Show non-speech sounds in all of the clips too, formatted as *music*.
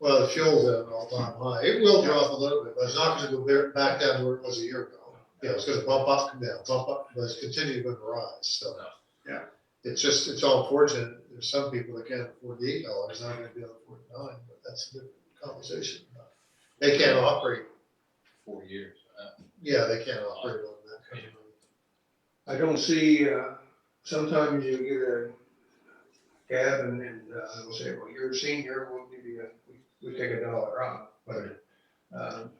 Well, fuel's at an all-time high. It will drop a little bit, but it's not gonna go bare- back down to where it was a year ago. You know, it's gonna bump up and down, bump up, but it's continuing to rise, so. Yeah. It's just, it's all fortunate. There's some people that can't afford the eight dollars, not gonna be able to afford nine, but that's a different conversation. They can't operate, four years. uh, yeah, they can't operate on that kind of money. I don't see, uh, sometimes you get a cab and, and, uh, they'll say, well, you're a senior, we'll give you a, we, we take a dollar off, but, um,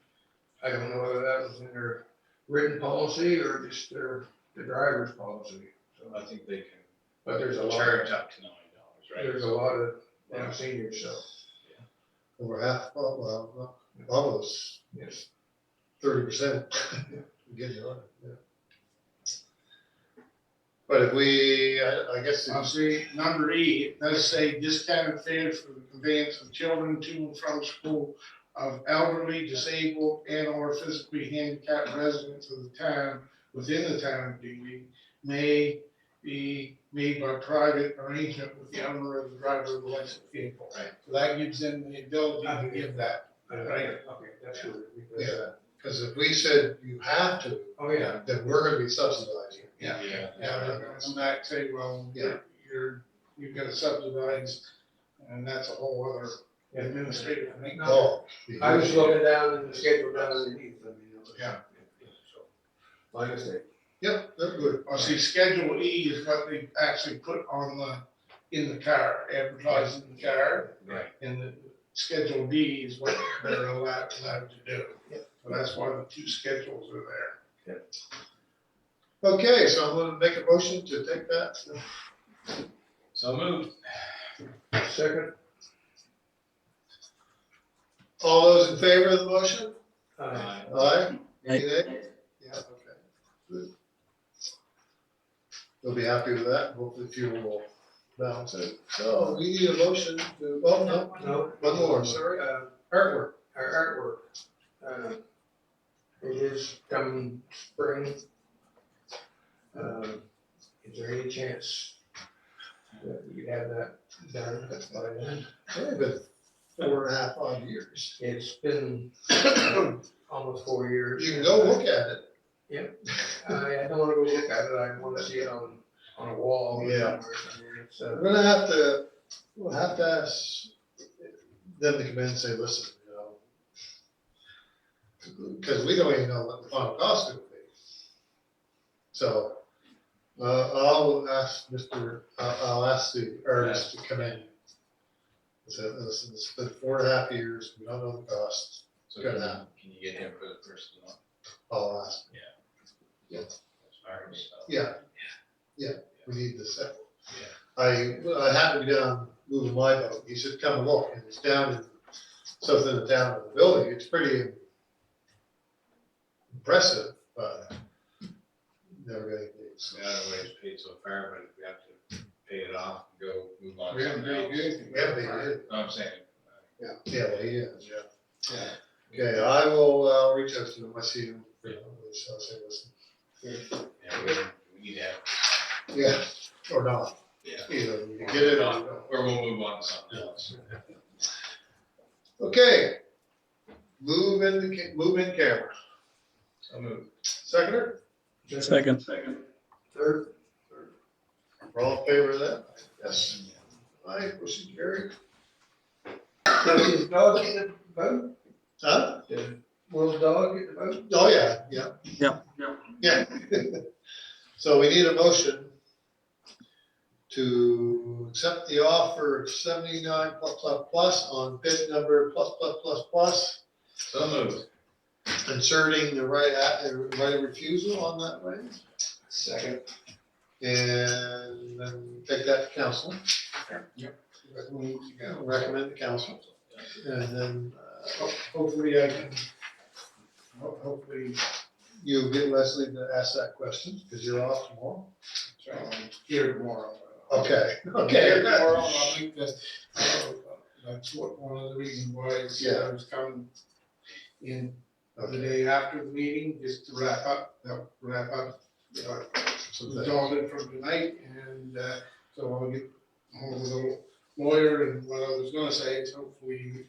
I don't know whether that was in their written policy or just their, the driver's policy, so, I think they can but there's a lot, charge of- up to nine dollars, right? there's a lot of, you know, seniors, so, Over half, well, well, almost yes. thirty percent. *laughs* Getting on it, yeah. But if we, I, I guess, I'll see, number E, it does say discounted fares for the conveyance of children to and from school of elderly, disabled, and or physically handicapped residents of the town, within the town of Dewey, may be made by private arrangement with the owner of the driver of the licensed vehicle. Right. So that gives them the ability to give that. Okay, that's good. because, uh, because if we said you have to, Oh, yeah, then we're gonna be subsidizing. Yeah. Yeah. Yeah, they're gonna come back and say, well, Yeah. you're, you've got to subsidize, and that's a whole other yeah. administrative thing. Oh. I was looking down in the schedule down underneath, I mean, it was. Yeah. So, My mistake. Yep, they're good. Well, see, Schedule E is what they actually put on the, in the car, advertising the car, Right. and the Schedule D is what they're allowed, allowed to do. So that's why the two schedules are there. Okay, so I'm gonna make a motion to take that. So moved. Second, All those in favor of the motion? uh, Aye. Any nay? Yeah, okay. Good. They'll be happy with that. Hopefully fuel will balance it. So we need a motion to, oh, no, no. One more, sorry. Uh, artwork. our artwork, uh, it is coming spring. Uh, is there any chance that you have that done by then? Only been four and a half, five years. *coughs* It's been almost four years. You can go look at it. I, I don't wanna go look at it, I wanna see it on, on a wall or Yeah. somewhere, I mean, it's, uh, We're gonna have to, we'll have to ask them to come in and say, listen, you know. Cause we don't even know what the final cost is gonna be. So, uh, I'll ask Mr., I'll, I'll ask the artist to come in. and Say, listen, it's been four and a half years, we don't know the cost, So Good can enough. you- can you get him for the first one? I'll ask, Sorry, so- yeah. Yeah, we need the second. Yeah. I, I happened to be down moving my boat, he said, come look, and it's down in, something down in the building, it's pretty impressive, but never gonna do it, so. We got our ways paid so far, but if we have to pay it off and go move on. We to haven't something paid else. anything. We have to do it. No, I'm saying, uh, Yeah, well, he is, yeah. Okay, I will, uh, I'll reach out to him, I see him, frequently, so I'll say, listen, uh, yeah, we, we need to have, yeah, or not, yeah. either, you can get it on. Or we'll move on to something else. Okay, move in the, ca- move in camera, So moved. seconder, Second. Third, we're all in favor of that? Yes. Aye, motion carried. now, does dog get the vote? Huh? Will dog get the vote? Oh, yeah, yeah. Yeah. Yeah. *laughs* So we need a motion to accept the offer of seventy-nine plus plus plus on bid number plus plus plus plus, So moved. inserting the right, a- uh, right of refusal on that right, Second. and then take that to council, Recommend to go. recommend to council. And then uh, Ho- Hopefully I can, ho- hopefully, you get Leslie to ask that question, because you're off tomorrow. so I'm um, here tomorrow. Okay, *laughs* Here okay. Tomorrow, I think that, uh, that's what, one of the reasons why I said I was coming in the Okay. day after the meeting, just to wrap up, uh, wrap up, uh, So the that- dogged from tonight, and, uh, so I'll get home with a lawyer and what I was gonna say, is hopefully